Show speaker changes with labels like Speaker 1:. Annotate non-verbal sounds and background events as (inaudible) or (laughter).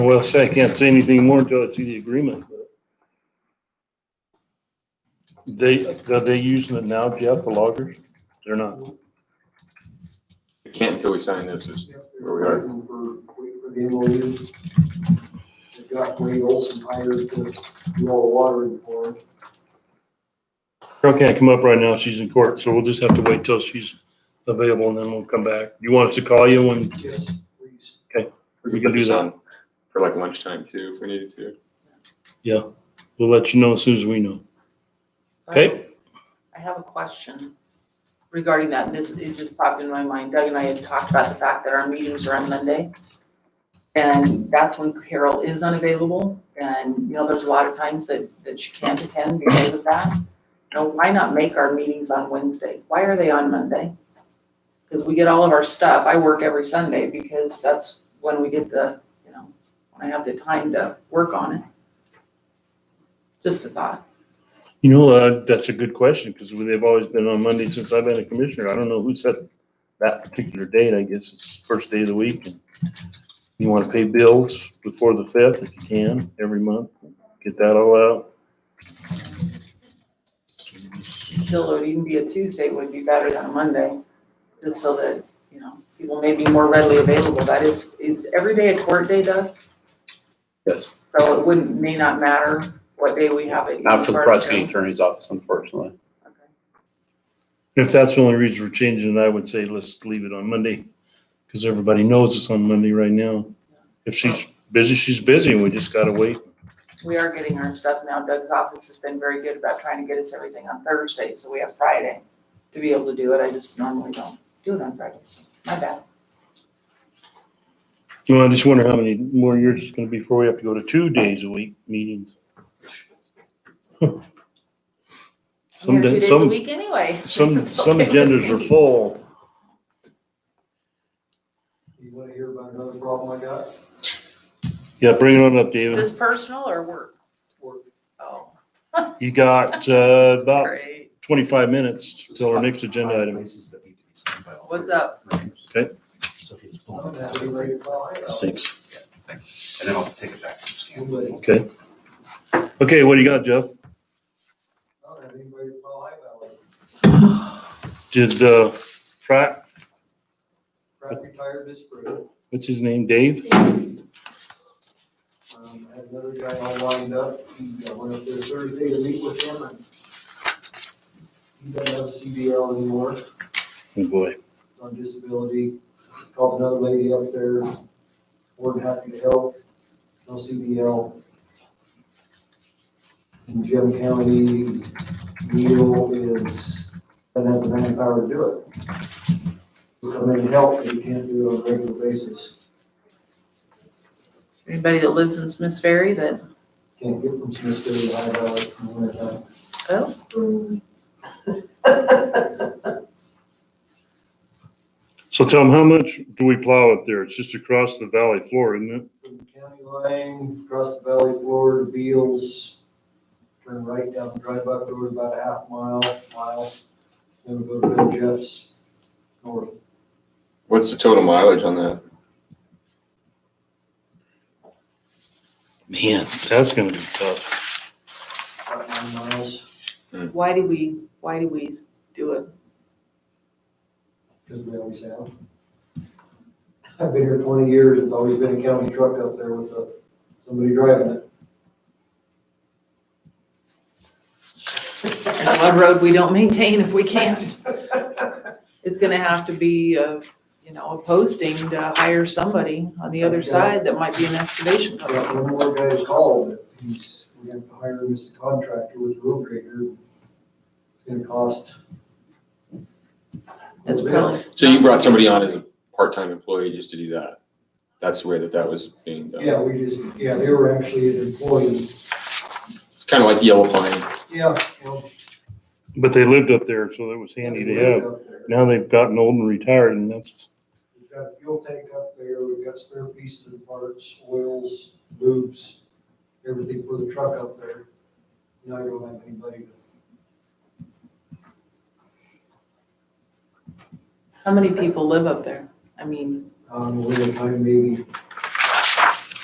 Speaker 1: Well, I say I can't say anything more until I see the agreement. but- They, are they using it now, Jeff, the loggers? They're not.
Speaker 2: We Can't until we sign this, is where we are.
Speaker 3: Waiting for, waiting for the MOU. They've got Wade Olson hired to do all the watering for them.
Speaker 1: Carol can't come up right now. She's in court, so we'll just have to wait till she's available and then we'll come back. You want us to call you when,
Speaker 3: Yes, please.
Speaker 1: We can do that.
Speaker 2: On For like lunchtime too, if we needed to.
Speaker 1: we'll let you know as soon as we know. Okay?
Speaker 4: I have a question regarding that. and This, it just popped in my mind. Doug and I had talked about the fact that our meetings are on Monday. And that's when Carol is unavailable. And, you know, there's a lot of times that, that she can't attend because of that. Now, why not make our meetings on Wednesday? Why are they on Monday? Because we get all of our stuff. I work every Sunday because that's when we get the, you know, when I have the time to work on it. Just a thought.
Speaker 1: You know, uh, that's a good question because they've always been on Monday since I've been a commissioner. I don't know who set that particular date. I guess it's first day of the week. and You want to pay bills before the fifth if you can, every month. Get that all out.
Speaker 4: Still, it would even be a Tuesday would be better than a Monday, just so that, you know, people may be more readily available. That is, is every day a court day, Doug?
Speaker 5: Yes,
Speaker 4: So it wouldn't, may not matter what day we have it.
Speaker 5: not for the
Speaker 4: Sorry,
Speaker 5: prosecuting attorney's office, unfortunately.
Speaker 4: Carol. Okay.
Speaker 1: If that's the only reason we're changing it, I would say let's leave it on Monday because everybody knows it's on Monday right now. If she's busy, she's busy and we just got to wait.
Speaker 4: We are getting our stuff now. Doug's office has been very good about trying to get us everything on Thursday, so we have Friday to be able to do it. I just normally don't do it on Fridays. My bad.
Speaker 1: Well, I just wonder how many more years it's gonna be before we have to go to two days a week meetings.
Speaker 4: I'm
Speaker 1: Some,
Speaker 4: here two
Speaker 1: da-
Speaker 4: days a
Speaker 1: some,
Speaker 4: week anyway. (laughs)
Speaker 1: some,
Speaker 4: It's
Speaker 1: some
Speaker 4: okay with
Speaker 1: agendas are
Speaker 4: me.
Speaker 1: full.
Speaker 3: You wanna hear about another problem I got?
Speaker 1: Yeah, bring it on up,
Speaker 4: (laughs) Is
Speaker 1: David.
Speaker 4: this personal or work?
Speaker 3: Or
Speaker 4: Oh,
Speaker 1: You got, uh, about
Speaker 4: great.
Speaker 1: twenty-five minutes till our next agenda item.
Speaker 4: What's up?
Speaker 1: Okay.
Speaker 3: I'm gonna have to be ready to file it.
Speaker 5: Six.
Speaker 6: And then I'll take it back to the scan.
Speaker 3: Anybody-
Speaker 1: Okay. Okay, what do you got, Jeff?
Speaker 3: I don't have anybody to file it.
Speaker 1: Did, uh, Pratt,
Speaker 3: Pratt retired this spring.
Speaker 1: what's his name, Dave? Oh,
Speaker 3: Um, I had another guy all lined up. He uh, went up there Thursday to meet with him and he doesn't have a CDL anymore.
Speaker 1: Oh, boy.
Speaker 3: on disability. Called another lady up there, more than happy to help, no CDL. In Jim County, Neil is, doesn't have the manpower to do it. We Come in and help, but you can't do it on a regular basis.
Speaker 4: Anybody that lives in Smiths Ferry that,
Speaker 3: Can't get from Smithville to High Valley in the wintertime.
Speaker 4: oh,
Speaker 3: (laughs)
Speaker 1: So tell him, how much do we plow up there? It's just across the valley floor, isn't it?
Speaker 3: From the county line, across the valley floor to Beals, turn right down the drive up road about a half mile, mile, then go to Red Jeff's north.
Speaker 2: What's the total mileage on that?
Speaker 1: Man. That's gonna be tough.
Speaker 3: about nine miles,
Speaker 4: why do we, why do we do it?
Speaker 3: because we always have. I've been here twenty years, it's always been a county truck up there with a- somebody driving it.
Speaker 4: And what road we don't maintain if we can't?
Speaker 3: (laughs)
Speaker 4: It's gonna have to be, uh, you know, a posting to hire somebody on the other side that might be an excavation
Speaker 3: I
Speaker 4: company.
Speaker 3: got one more guy to call, but he's, we have to hire him as a contractor with a road grader. It's gonna cost.
Speaker 4: It's really.
Speaker 2: So you brought somebody on as a part-time employee just to do that? That's the way that that was being done.
Speaker 3: Yeah, we just, yeah, they were actually his employees.
Speaker 2: It's kind of like Yellow Pine.
Speaker 3: Yeah. well,
Speaker 1: But they lived up there, so that was handy to
Speaker 3: we
Speaker 1: have.
Speaker 3: live up there.
Speaker 1: Now they've gotten old and retired and that's,
Speaker 3: We've got a fuel tank up there, we've got spare pieces and parts, oils, lubes, everything for the truck up there. Now I don't have anybody to
Speaker 4: How many people live up there? I mean,
Speaker 3: Um, we're gonna find maybe